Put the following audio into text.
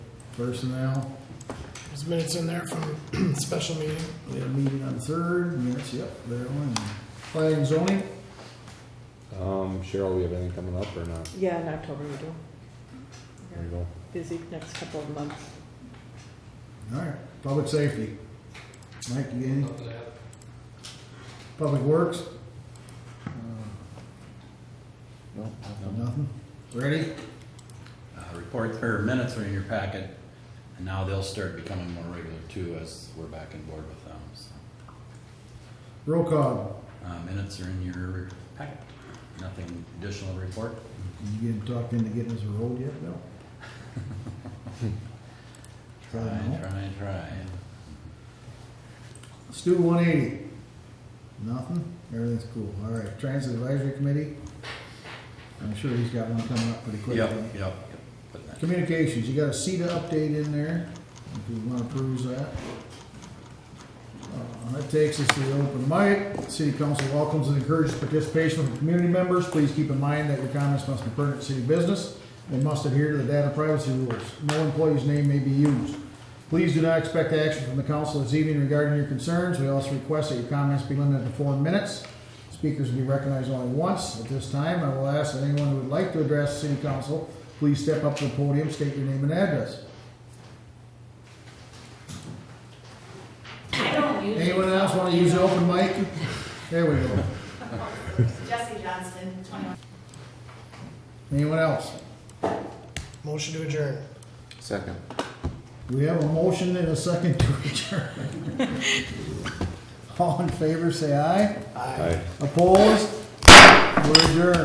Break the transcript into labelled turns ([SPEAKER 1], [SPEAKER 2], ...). [SPEAKER 1] personnel.
[SPEAKER 2] There's minutes in there from special meeting.
[SPEAKER 1] We had a meeting on the third, minutes, yep, there one. Planning and zoning,
[SPEAKER 3] Um, Cheryl, we have anything coming up or not?
[SPEAKER 4] Yeah, in October we do.
[SPEAKER 3] There you go.
[SPEAKER 4] Busy next couple of months.
[SPEAKER 1] all right, public safety. Mike, you got any? Public works? Uh,
[SPEAKER 5] No,
[SPEAKER 1] Nothing? Ready?
[SPEAKER 6] Uh, Report, or minutes are in your packet, and now they'll start becoming more regular too as we're back in board with them. so.
[SPEAKER 1] Roll call.
[SPEAKER 6] Uh, Minutes are in your packet. Nothing additional to report?
[SPEAKER 1] You get talked into getting us a road yet? No.
[SPEAKER 6] Try,
[SPEAKER 1] Probably not.
[SPEAKER 6] try, try.
[SPEAKER 1] Stu one eighty. Nothing? Everything's cool. All right, transit advisory committee. I'm sure he's got one coming up pretty quickly.
[SPEAKER 6] Yep, yep, yep. Put that-
[SPEAKER 1] Communications, you got a CETA update in there, if you wanna peruse that. Uh, That takes us to the open mic. City council welcomes and encourages participation from community members. Please keep in mind that your comments must be pertinent to city business and must adhere to the data privacy rules. No employee's name may be used. Please do not expect action from the council this evening regarding your concerns. We also request that your comments be limited to four minutes. Speakers will be recognized only once. At this time, I will ask that anyone who would like to address the city council, please step up to the podium, state your name and address.
[SPEAKER 7] I don't usually.
[SPEAKER 1] Anyone else want to use the open mic? There we go.
[SPEAKER 7] Jesse Johnston, twenty-one.
[SPEAKER 1] Anyone else?
[SPEAKER 2] Motion to adjourn.
[SPEAKER 3] Second.
[SPEAKER 1] We have a motion and a second to adjourn. All in favor, say aye.
[SPEAKER 3] Aye.
[SPEAKER 1] Opposed? We're adjourned.